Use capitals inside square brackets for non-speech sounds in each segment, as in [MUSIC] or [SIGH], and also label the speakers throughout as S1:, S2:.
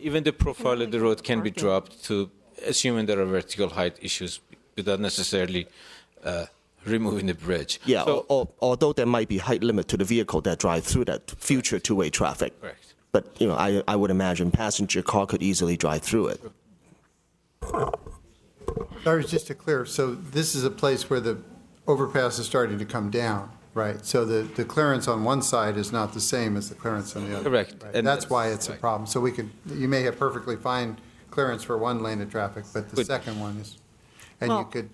S1: Even the profile of the road can be dropped to, assuming there are vertical height issues, without necessarily uh, removing the bridge.
S2: Yeah,
S1: So-
S2: or, or, although there might be height limit to the vehicle that drive through that future two-way traffic.
S1: Correct.
S2: But, you know, I, I would imagine passenger car could easily drive through it.
S3: Sorry, just to clear, so this is a place where the overpass is starting to come down, right? So the, the clearance on one side is not the same as the clearance on the other.
S1: Correct.
S3: Right.
S1: And
S3: That's
S1: that's-
S3: why it's a
S1: right.
S3: problem. So we could, you may have perfectly fine clearance for one lane of traffic, but the
S1: Good.
S3: second one is, and
S4: Well-
S3: you could,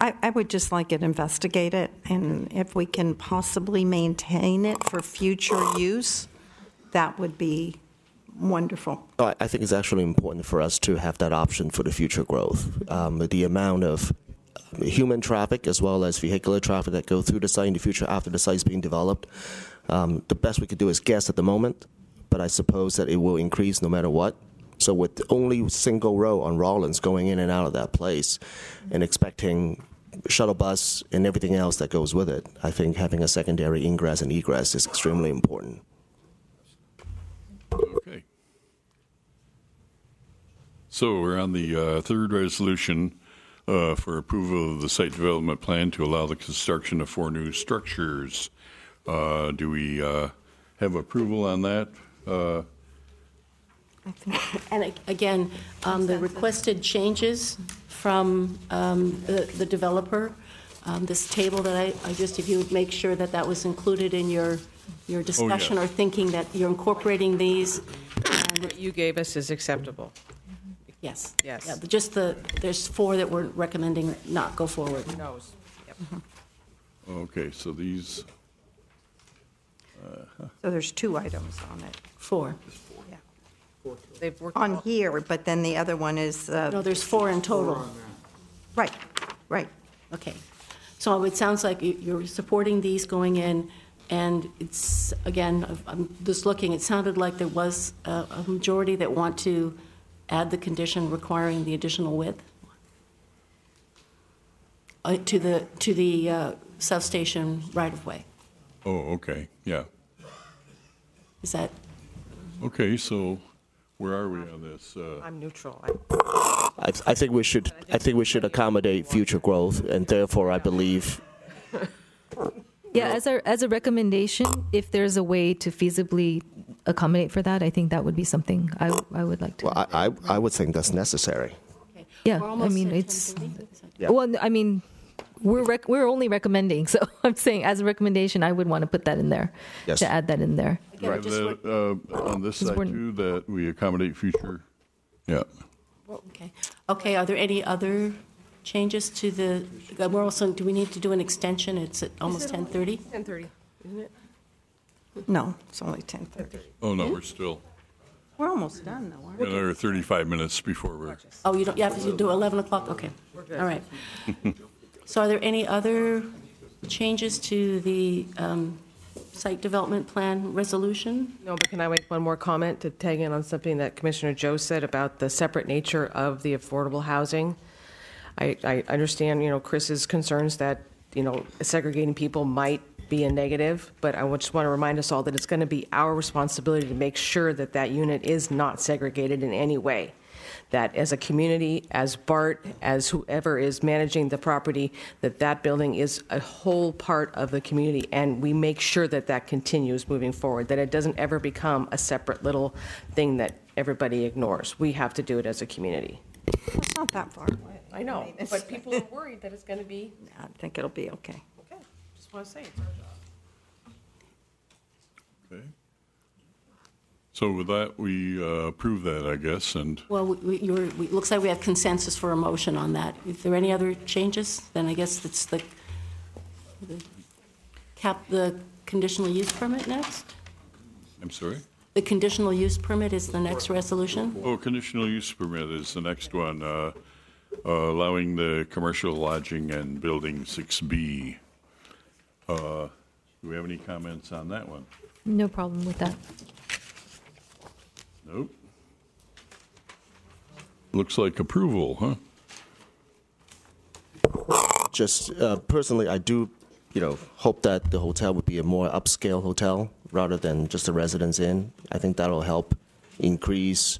S4: I, I would just like it investigated, and if we can possibly maintain it for future use, that would be wonderful.
S2: I I think it's actually important for us to have that option for the future growth. Um, the amount of um, human traffic as well as vehicular traffic that go through the site in the future after the site's being developed, um, the best we could do is guess at the moment, but I suppose that it will increase no matter what. So with only single row on Rollins going in and out of that place and expecting shuttle bus and everything else that goes with it, I think having a secondary ingress and egress is extremely important.
S5: Okay. So we're on the uh, third resolution uh, for approval of the site development plan to allow the construction of four new structures. Uh, Do we uh, have approval on that? Uh,
S6: And ag- again, um, the requested changes from um, the the developer, um, this table that I- I just, if you would make sure that that was included in your, your discussion or thinking that you're incorporating these,
S7: What you gave us is acceptable.
S6: yes.
S7: Yes.
S6: Yeah, but Just the, there's four that we're recommending not go forward.
S7: Knows.
S5: Okay, so these,
S4: So there's two items on it,
S6: Four.
S4: yeah.
S7: They've worked.
S4: On here, but then the other one is, uh,
S6: No, there's four in total.
S4: right, right.
S6: Okay. So it sounds like you- you're supporting these going in, and it's, again, I'm just looking, it sounded like there was a a majority that want to add the condition requiring the additional width uh, to the, to the uh, substation right-of-way.
S5: oh, okay, yeah.
S6: Is that,
S5: Okay, so where are we on this? Uh,
S7: I'm neutral. I-
S2: I, I think we should. I think we should accommodate future growth, and therefore, I believe.
S8: Yeah, as a as a recommendation, if there's a way to feasibly accommodate for that, I think that would be something I I would like to.
S2: Well, I, I, I would think that's necessary.
S6: okay.
S8: Yeah,
S6: We're
S8: I
S6: almost
S8: mean,
S6: at
S8: it's-
S6: 10:30? Is that-
S2: Yeah.
S8: Well, I mean, we're rec- we're only recommending, [LAUGHS] so I'm saying as a recommendation, I would want to put that in there
S2: Yes.
S8: to add that in there.
S6: Again, I just want-
S5: that, uh, On this side
S8: we're-
S5: too, that we accommodate future, yeah.
S6: Okay. Okay, are there any other changes to the, uh, we're also, do we need to do an extension? It's at almost 10:30?
S7: 10:30, isn't it?
S4: No, it's only 10:30.
S5: Oh, no, we're still,
S4: We're almost done, though, aren't we?
S5: another 35 minutes before we're.
S6: Oh, you don't, you have to do 11 o'clock, okay. All right. So are there any other changes to the um, site development plan resolution?
S7: No, but can I make one more comment to tag in on something that Commissioner Joe said about the separate nature of the affordable housing? I, I understand, you know, Chris's concerns that, you know, segregating people might be a negative, but I just want to remind us all that it's going to be our responsibility to make sure that that unit is not segregated in any way. That as a community, as BART, as whoever is managing the property, that that building is a whole part of the community, and we make sure that that continues moving forward, that it doesn't ever become a separate little thing that everybody ignores. We have to do it as a community.
S4: It's not that far away.
S7: I know, but people are worried that it's going to be,
S4: I think it'll be okay.
S7: okay, just want to say, it's our job.
S5: Okay. So with that, we uh, approve that, I guess, and
S6: Well, we- we- you're, we- it looks like we have consensus for a motion on that. If there are any other changes, then I guess it's the, the cap, the conditional use permit next?
S5: I'm sorry?
S6: The conditional use permit is the next resolution?
S5: Oh, conditional use permit is the next one, uh, uh, allowing the commercial lodging and building 6B. Uh, Do we have any comments on that one?
S8: No problem with that.
S5: Nope. Looks like approval, huh?
S2: Just uh, personally, I do, you know, hope that the hotel would be a more upscale hotel rather than just a residence inn. I think that'll help increase